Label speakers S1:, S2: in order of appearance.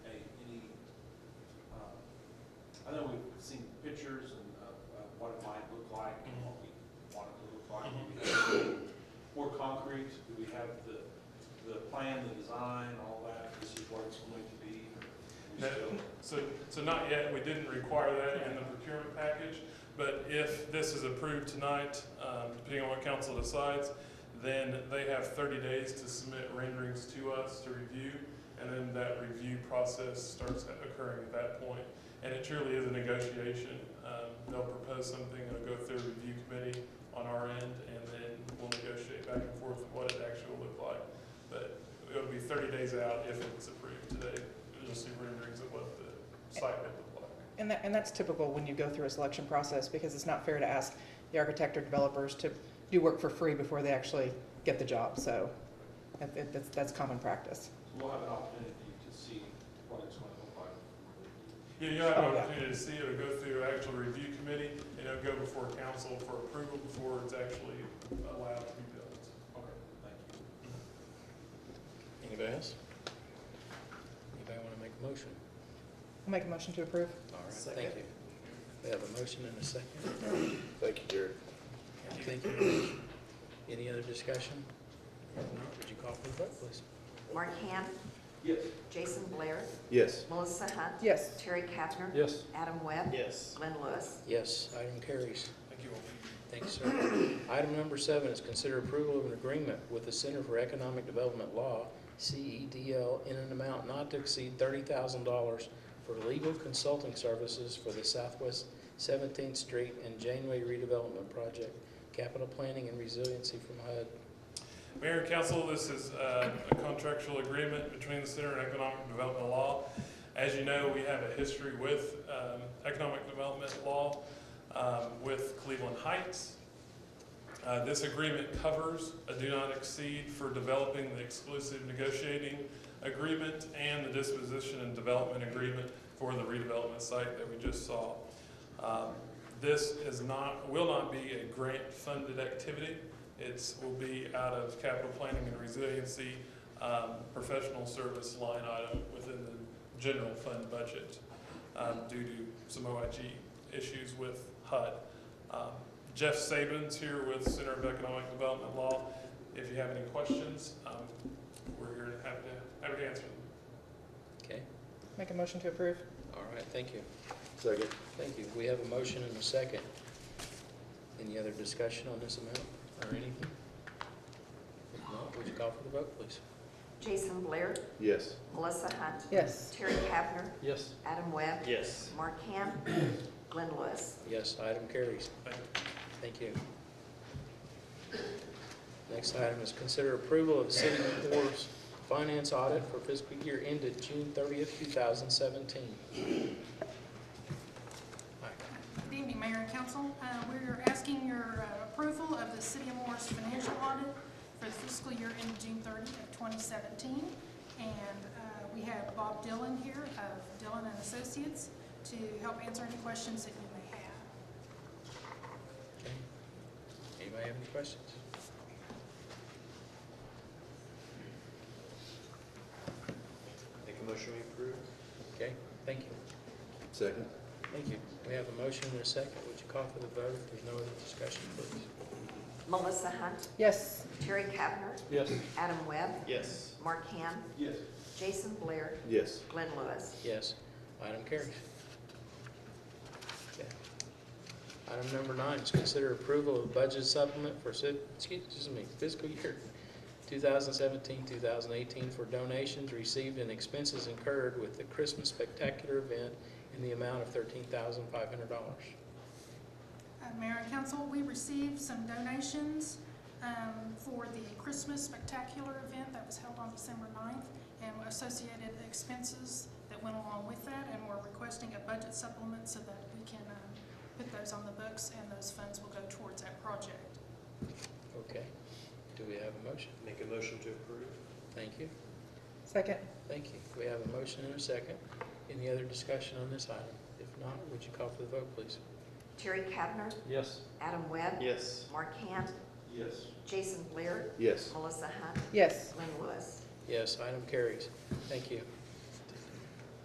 S1: uh, have the, the plan, the design, all that, this is what it's going to be? or we
S2: No,
S1: still-
S2: So, so not yet, we didn't require that in the procurement package, but if this is approved tonight, um, depending on what council decides, then they have 30 days to submit renderings to us to review, and then that review process starts occurring at that point. And it truly is a negotiation. Um, They'll propose something, it'll go through a review committee on our end, and then we'll negotiate back and forth what it actually will look like. But it'll be 30 days out if it's approved today. You'll just see renderings of what the site would look like.
S3: And that, and that's typical when you go through a selection process, because it's not fair to ask the architect or developers to do work for free before they actually get the job, so that- that- that's, that's common practice.
S1: So We'll have an opportunity to see what it's going to look like.
S2: Yeah, you'll have
S3: Oh,
S2: an
S3: yeah.
S2: opportunity to see it, it'll go through an actual review committee, and it'll go before council for approval before it's actually allowed to be built.
S1: Okay, thank you.
S4: Anybody else? Anybody want to make a motion?
S3: I'll make a motion to approve.
S4: All right, thank
S3: Second.
S4: you. We have a motion and a second.
S5: Thank you, Jared.
S4: Thank you. Any other discussion? If not, would you call for the vote, please?
S6: Mark Ham,
S1: Yes.
S6: Jason Blair,
S5: Yes.
S6: Melissa Hunt.
S3: Yes.
S6: Terry Kavner.
S5: Yes.
S6: Adam Webb.
S5: Yes.
S6: Glenn Lewis.
S4: Yes, item carries.
S2: Thank you all.
S4: Thank you, sir. Item number seven is consider approval of an agreement with the Center for Economic Development Law, CEDL, in an amount not to exceed $30,000 for legal consulting services for the Southwest 17th Street and Janeway redevelopment project, capital planning and resiliency from HUD.
S2: Mayor and council, this is uh, a contractual agreement between the Center and Economic Development Law. As you know, we have a history with um, economic development law um, with Cleveland Heights. Uh, This agreement covers a do not exceed for developing the exclusive negotiating agreement and the disposition and development agreement for the redevelopment site that we just saw. Um, This is not, will not be a grant-funded activity. It's, will be out of capital planning and resiliency, um, professional service line item within the general fund budget um, due to some OIG issues with HUD. Um, Jeff Sabins here with Center of Economic Development Law. If you have any questions, um, we're here to have to, happy to answer them.
S4: Okay?
S3: Make a motion to approve.
S4: All right, thank you.
S5: Second.
S4: Thank you. We have a motion and a second. Any other discussion on this amount or anything? If not, would you call for the vote, please?
S6: Jason Blair,
S5: Yes.
S6: Melissa Hunt.
S3: Yes.
S6: Terry Kavner,
S5: Yes.
S6: Adam Webb.
S5: Yes.
S6: Mark Ham, Glenn Lewis.
S4: Yes, item carries.
S2: Thank you.
S4: Thank you. Next item is consider approval of city board's finance audit for fiscal year ended June 30th, 2017. Mike.
S7: Good evening, Mayor and Council. Uh, We're asking your uh, approval of the City of Morris financial audit for the fiscal year ending June 30 of 2017. And uh, we have Bob Dillon here of Dillon and Associates to help answer any questions that you may have.
S4: Okay. Anybody have any questions?
S5: Make a motion we approve?
S4: Okay, thank you.
S5: Second.
S4: Thank you. We have a motion and a second. Would you call for the vote if there's no other discussion, please?
S6: Melissa Hunt,
S3: Yes.
S6: Terry Kavner,
S5: Yes.
S6: Adam Webb.
S5: Yes.
S6: Mark Ham,
S1: Yes.
S6: Jason Blair,
S5: Yes.
S6: Glenn Lewis.
S4: Yes, item carries. Okay. Item number nine is consider approval of budget supplement for, si- excuse me, fiscal year 2017, 2018 for donations received and expenses incurred with the Christmas Spectacular event in the amount of $13,500.
S7: Uh, Mayor and Council, we received some donations um, for the Christmas Spectacular event that was held on December 9th and associated expenses that went along with that, and we're requesting a budget supplement so that we can um, put those on the books, and those funds will go towards that project.
S4: Okay, do we have a motion?
S5: Make a motion to approve?
S4: Thank you,
S3: Second.
S4: thank you. We have a motion and a second. Any other discussion on this item? If not, would you call for the vote, please?
S6: Terry Kavner,
S5: Yes.
S6: Adam Webb.
S5: Yes.
S6: Mark Ham,
S1: Yes.
S6: Jason Blair,
S5: Yes.
S6: Melissa Hunt,
S3: Yes.
S6: Glenn Lewis.
S4: Yes, item carries. Thank you.